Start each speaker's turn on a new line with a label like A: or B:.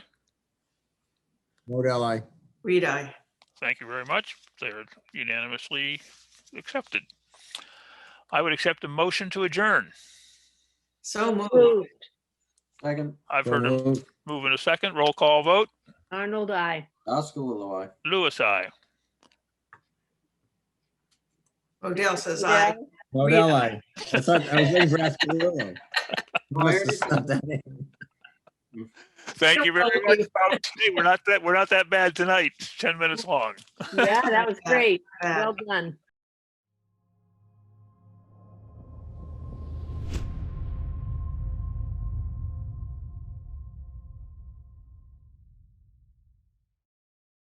A: Modell, I.
B: Reed, I.
C: Thank you very much. They're unanimously accepted. I would accept a motion to adjourn.
B: So moved.
D: Moved.
E: Second,
C: I've
A: So
C: heard a
A: moved.
C: move in a second. Roll call vote.
D: Arnold, I.
E: Oscar Lilloye.
C: Lewis, I.
B: Odell says aye.
A: Modell, I. I thought, I was waiting for Askew.
E: Where did-
C: Thank you very much. folks. Hey, We're not that, we're not that bad tonight. 10 minutes long.
D: Yeah, that was great.
B: Bad.
D: Well done.